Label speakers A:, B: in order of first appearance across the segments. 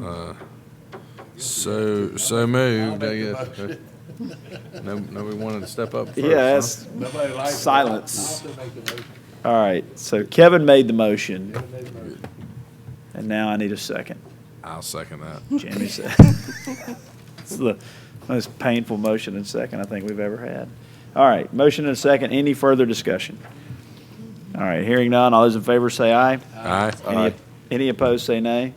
A: Uh, So, so moved, I guess. No, nobody wanted to step up first? huh?
B: Yeah, that's,
C: Nobody likes it.
B: Silence.
C: I'll still make the motion.
B: all right. So Kevin made the motion,
C: Kevin made the motion.
B: and now I need a second.
A: I'll second that.
B: Jamie said. It's the most painful motion and second I think we've ever had. All right, motion and second. Any further discussion? All right, hearing none. All those in favor say aye.
A: Aye.
B: Any- Any opposed, say nay.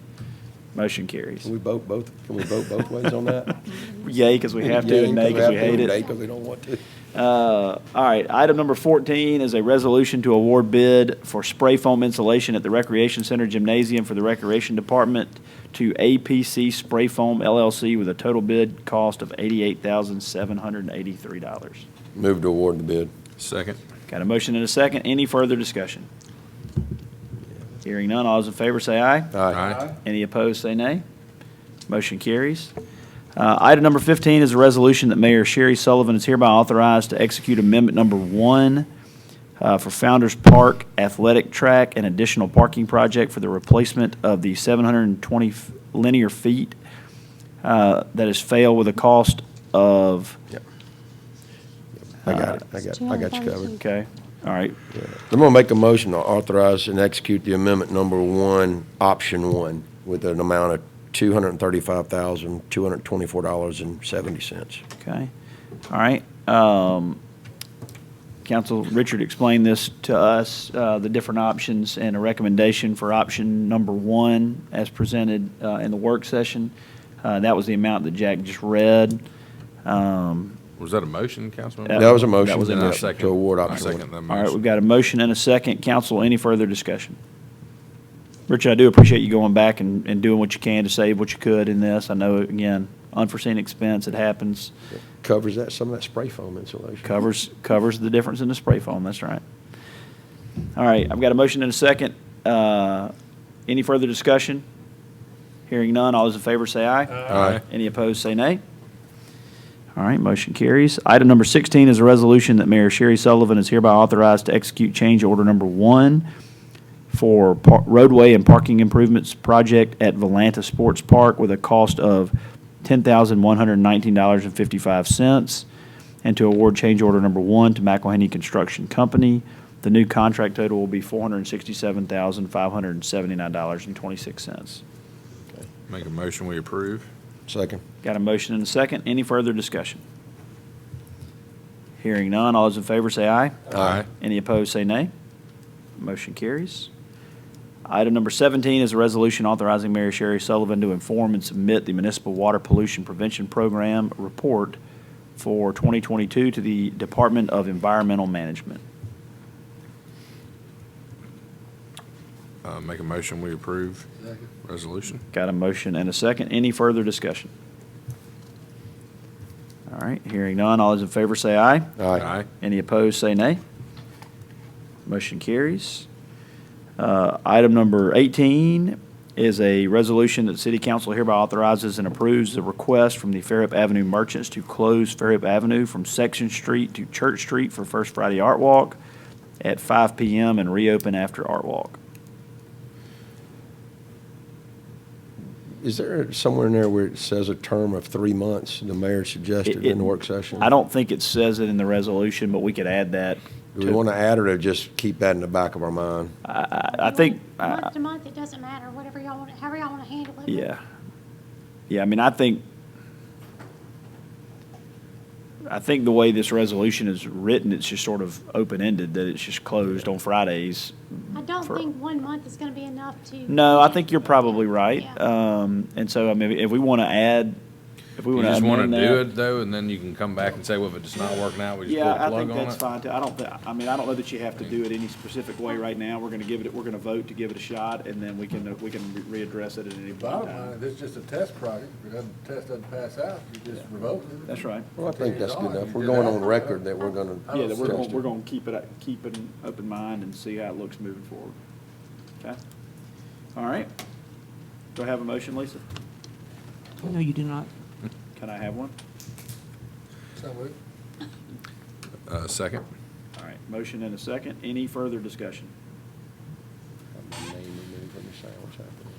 B: Motion carries.
D: Can we vote both, can we vote both ways on that?
B: Yay, because we have to,
D: Yeah,
B: and nay, because we
D: have to,
B: hate
D: or Nay,
B: it.
D: because we don't want to.
B: Uh, All right, item number 14 is a resolution to award bid for spray foam insulation at the Recreation Center Gymnasium for the Recreation Department to APC Spray Foam LLC with a total bid cost of $88,783.
D: Move to award the bid.
A: Second.
B: Got a motion and a second. Any further discussion? Hearing none, all those in favor say aye.
A: Aye.
B: Any opposed, say nay. Motion carries. Uh, Item number 15 is a resolution that Mayor Sherry Sullivan is hereby authorized to execute Amendment Number One uh, for Founder's Park Athletic Track and additional parking project for the replacement of the 720 f- linear feet uh, that has failed with a cost of,
D: I got it, I got, I got you covered.
B: okay, all right,
D: I'm gonna make a motion to authorize and execute the amendment number one, option one, with an amount of two hundred and thirty-five thousand, two hundred and twenty-four dollars and seventy cents.
B: okay, all right. Um, Council, Richard explained this to us, uh, the different options and a recommendation for option number one as presented uh, in the work session. Uh, That was the amount that Jack just read. Um,
A: Was that a motion, Councilman?
B: Yeah.
D: That was a
B: That
D: motion,
B: was a
A: Then I
D: yes,
A: second-
D: to award
A: I
D: option
A: second
D: one.
A: that
B: All right,
A: motion.
B: we've got a motion and a second. Council, any further discussion? Richard, I do appreciate you going back and, and doing what you can to save what you could in this. I know, again, unforeseen expense, it happens.
D: Covers that, some of that spray foam insulation.
B: Covers, covers the difference in the spray foam, that's right. All right, I've got a motion and a second. Uh, Any further discussion? Hearing none, all those in favor say aye.
A: Aye.
B: Any opposed, say nay. All right, motion carries. Item number 16 is a resolution that Mayor Sherry Sullivan is hereby authorized to execute change order number one for par- roadway and parking improvements project at Volanta Sports Park with a cost of $10,119.55, and to award change order number one to McElhenney Construction Company. The new contract total will be $467,579.26.
A: Make a motion, we approve.
D: Second.
B: Got a motion and a second. Any further discussion? Hearing none. All those in favor say aye.
A: Aye.
B: Any opposed, say nay. Motion carries. Item number 17 is a resolution authorizing Mayor Sherry Sullivan to inform and submit the Municipal Water Pollution Prevention Program report for 2022 to the Department of Environmental Management.
A: Uh, Make a motion, we approve
C: Second.
A: resolution.
B: Got a motion and a second. Any further discussion? All right, hearing none. All those in favor say aye.
D: Aye.
B: Any opposed, say nay. Motion carries. Uh, Item number 18 is a resolution that City Council hereby authorizes and approves the request from the Fairhope Avenue merchants to close Fairhope Avenue from Section Street to Church Street for First Friday Art Walk at 5 PM and reopen after Art Walk.
D: Is there somewhere in there where it says a term of three months, the mayor suggested in the work session?
B: I don't think it says it in the resolution, but we could add that.
D: Do we
B: to-
D: want to add or just keep that in the back of our mind?
B: I I think, I-
E: Month to month, it doesn't matter, whatever y'all want, however y'all want to handle it. but
B: Yeah. Yeah, I mean, I think, I think the way this resolution is written, it's just sort of open-ended, that it's just closed on Fridays.
E: I don't
B: For-
E: think one month is going to be enough to.
B: No, I think you're probably right.
E: Yeah.
B: Um, and so, I mean, if we want to add, if we
A: You
B: want to
A: just want
B: amend
A: to do
B: that.
A: it, though, and then you can come back and say, well, if it's not working out, we just pull
B: Yeah,
A: the
B: I
A: plug
B: think
A: on
B: that's
A: it.
B: fine. too. I don't, thi- I mean, I don't know that you have to do it any specific way right now. We're going to give it, we're going to vote to give it a shot, and then we can, we can re- readdress it at any point in
C: Bottom line,
B: time.
C: if it's just a test project, if it doesn't, test doesn't pass out, you just revoke it.
B: That's right.
D: Well, I think that's good enough. We're going on record that we're going to.
C: I
B: Yeah,
C: don't
B: that we're going,
C: suggest
B: we're going to keep it, keep an open mind and see how it looks moving forward. Okay? All right. Do I have a motion, Lisa?
F: No, you do not.
B: Can I have one?
C: So moved.
A: Uh, Second.
B: All right, motion and a second. Any further discussion?
D: My name removed from the sandwich, I think.